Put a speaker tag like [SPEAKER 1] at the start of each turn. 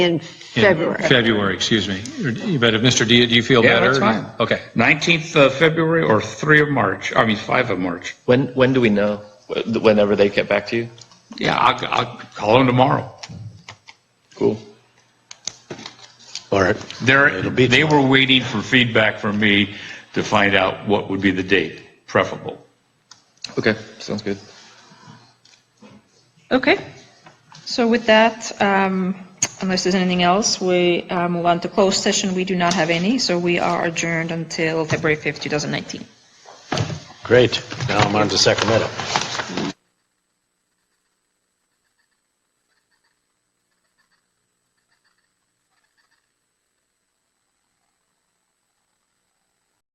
[SPEAKER 1] in
[SPEAKER 2] in
[SPEAKER 1] February.
[SPEAKER 2] February, excuse me. But if, Mr. Dia, do you feel
[SPEAKER 3] Yeah,
[SPEAKER 2] better?
[SPEAKER 3] that's fine.
[SPEAKER 2] Okay.
[SPEAKER 3] 19th of uh, February or 3 of March, I mean, 5 of March.
[SPEAKER 4] When, when do we know? Wh- Whenever they get back to you?
[SPEAKER 3] Yeah, I'll, I'll call them tomorrow.
[SPEAKER 4] Cool.
[SPEAKER 5] All right.
[SPEAKER 3] They're,
[SPEAKER 5] It'll be
[SPEAKER 3] they were waiting for feedback from me to find out what would be the date preferable.
[SPEAKER 4] Okay, sounds good.
[SPEAKER 6] Okay. So with that, um, unless there's anything else, we uh, move on to closed session. We do not have any, so we are adjourned until February 5th, 2019.
[SPEAKER 5] Great. Now I'm on to Sacramento.